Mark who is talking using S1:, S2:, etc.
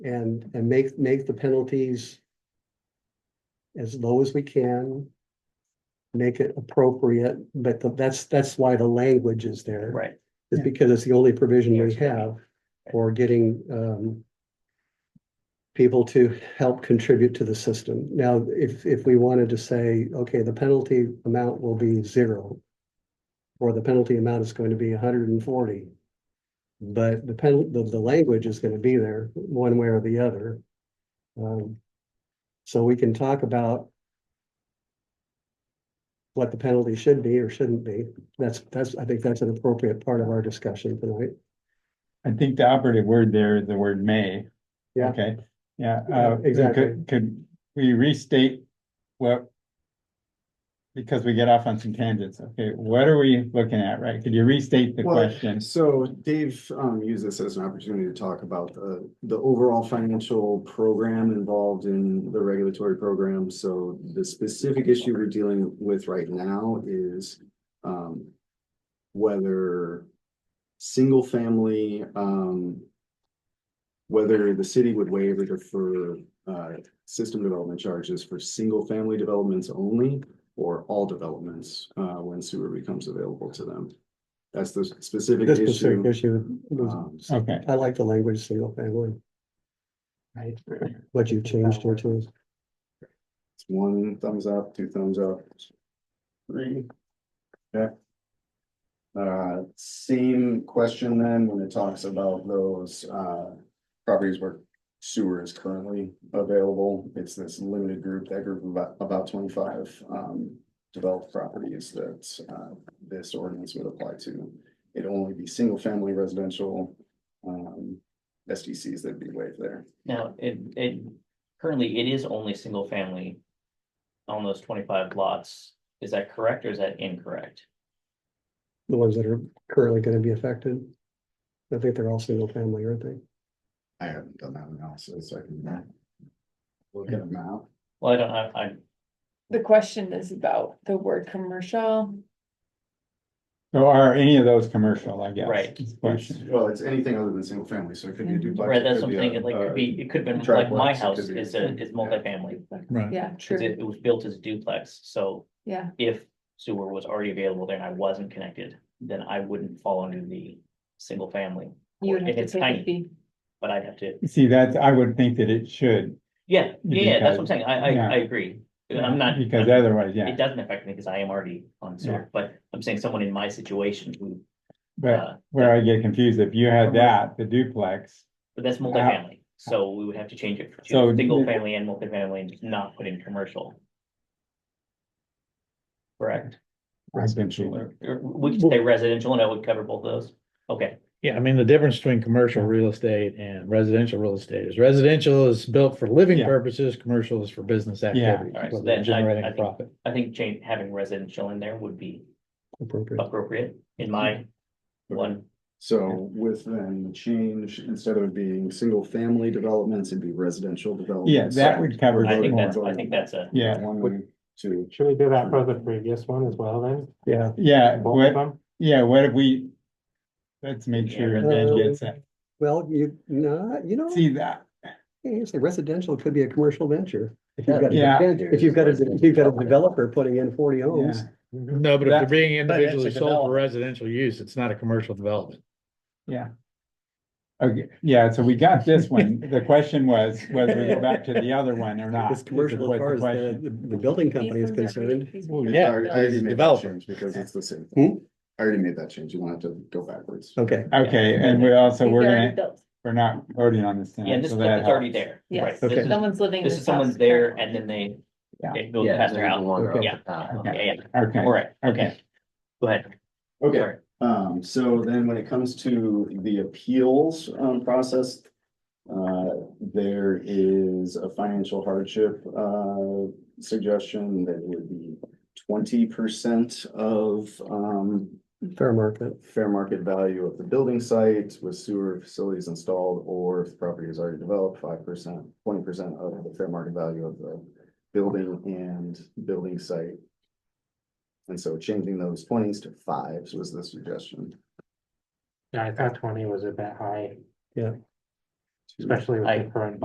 S1: and, and make, make the penalties as low as we can. Make it appropriate, but the- that's, that's why the language is there.
S2: Right.
S1: It's
S3: Yeah.
S1: because it's the only provision we have for getting um. People to help contribute to the system. Now, if if we wanted to say, okay, the penalty amount will be zero. Or the penalty amount is going to be hundred and forty. But the pen, the the language is going to be there one way or the other. Um, so we can talk about. What the penalty should be or shouldn't be. That's, that's, I think that's an appropriate part of our discussion tonight.
S3: I think the operative word there is the word may.
S1: Yeah.
S3: Okay, yeah.
S1: Yeah,
S3: uh,
S1: exactly.
S3: could- Could we restate what? Because we get off on some tangents, okay, what are we looking at, right? Could you restate the
S4: Well,
S3: question?
S4: So Dave um used this as an opportunity to talk about the the overall financial program involved in the regulatory program. So the specific issue we're dealing with right now is um whether single family um whether the city would waive or defer uh system development charges for single family developments only or all developments uh when sewer becomes available to them. That's the specific
S1: This specific
S4: issue.
S1: issue, was-
S4: Um,
S3: Okay,
S1: I like the language single family,
S2: Right.
S1: what you've changed here to.
S4: it's One thumbs up, two thumbs up. Three. Okay. Uh, same question then when it talks about those uh properties where sewer is currently available. It's this limited group, that group of about about twenty-five um developed properties that uh this ordinance would apply to. It'd only be single-family residential um SDCs that'd be waived there.
S2: Now, it, it, currently it is only single family. On those twenty-five lots, is that correct or is that incorrect?
S1: The ones that are currently gonna be affected. I think they're all single family, aren't they?
S4: I haven't done that analysis, I can. Look at them out.
S2: Well, I don't, I, I,
S5: The question is about the word commercial.
S3: so are any of those commercial, I guess?
S2: Right.
S3: is the Question,
S4: Well, it's anything other than single family, so it could be a
S5: Mhm.
S4: duplex.
S2: right,
S4: it
S2: that's what I'm
S4: could be a- uh,
S2: thinking, like,
S4: a-
S2: could be, it could have been like
S4: triplex,
S2: my
S4: it could
S2: house
S4: be-
S2: is a, is multifamily.
S3: Right.
S5: Yeah,
S2: Cause
S5: true,
S2: it, it was built as duplex, so
S5: yeah,
S2: if sewer was already available there and I wasn't connected, then I wouldn't fall under the single family.
S5: you would have
S2: If
S5: to
S2: it's
S5: pay the
S2: tiny,
S5: fee,
S2: but I'd have to,
S3: see, that, I would think that it should.
S2: yeah, yeah, yeah, that's what I'm saying,
S3: Because-
S2: I, I,
S3: yeah.
S2: I agree, I'm not.
S3: Because otherwise,
S2: It
S3: yeah,
S2: doesn't affect me because I am already on
S3: Yeah.
S2: sewer, but I'm saying someone in my situation who,
S3: but
S2: uh,
S3: where I get confused, if you had that, the duplex,
S2: but that's multifamily. So we would have to change it
S3: Uh-huh. So-
S2: to single family and multifamily and just not put in commercial. Correct?
S3: eventually.
S2: Or- or We could say residential and I would cover both of those. Okay,
S6: Yeah, I mean, the difference between commercial real estate and residential real estate is residential is built for living
S3: Yeah.
S6: purposes, commercial is for business activity.
S2: Alright, so
S6: whether
S2: then I-
S6: Generating
S2: I
S6: a
S2: think-
S6: profit.
S2: I think change, having residential in there would be
S1: Appropriate.
S2: appropriate in my one.
S4: So with then the change, instead of being single family developments, it'd be residential developments.
S3: Yeah, that would cover.
S2: I
S3: it
S2: think
S3: more.
S2: that's, I think that's a,
S3: Yeah,
S4: One, two,
S7: Should we do that for the previous one as well then?
S1: Yeah,
S3: yeah,
S7: Both
S3: what,
S7: of them?
S3: Yeah, what if we? Let's make sure
S2: Yeah.
S3: Dan gets that.
S1: well, you, no, you know,
S3: See that?
S1: you say residential could be a commercial venture. If you've got,
S3: Yeah.
S1: a- if you've got, a if you've got a developer putting in forty homes,
S3: Yeah.
S6: Mm-hmm. No, but if they're
S3: That's-
S6: being
S3: that's a
S6: individually sold for
S3: development.
S6: residential use, it's not a commercial development.
S3: Okay, yeah, so we got this one. The question was, whether we go back to the other one or not.
S1: it's commercial
S3: was
S1: as
S3: the
S1: far as the,
S3: question.
S1: the the building company is
S5: These ones are-
S1: concerned.
S5: these
S4: I
S3: Oh,
S5: ones-
S6: Yeah,
S4: already- I
S6: it's
S4: already made that
S6: developer.
S4: change Because it's the same.
S3: Hmm?
S4: thing. I already made that change, you won't have to go backwards.
S1: Okay,
S3: Okay, and we also,
S5: these
S3: we're
S5: are already
S3: gonna,
S5: built.
S3: we're not voting on this
S2: yeah,
S3: tonight.
S2: this
S3: so
S2: is
S3: that
S2: it's already
S3: helps.
S2: there.
S5: Yes,
S2: right? This is-
S5: someone's living.
S2: This is
S5: house.
S2: someone's there and then they,
S3: Yeah.
S2: it goes past their house.
S1: okay.
S2: Yeah, yeah, yeah,
S3: Okay,
S2: all right,
S3: okay.
S2: okay. Go ahead.
S3: Oh.
S4: Okay,
S2: Sorry.
S4: Um, so then when it comes to the appeals, um, process, uh, there is a financial hardship, uh, suggestion that would be twenty percent of, um,
S1: fair market.
S4: fair market value of the building site with sewer facilities installed, or if the property is already developed, five percent, twenty percent of the fair market value of the building and building site. And so changing those twenties to fives was the suggestion.
S7: Yeah, I thought twenty was a bit high.
S4: to-
S7: especially with
S2: I-
S7: the current.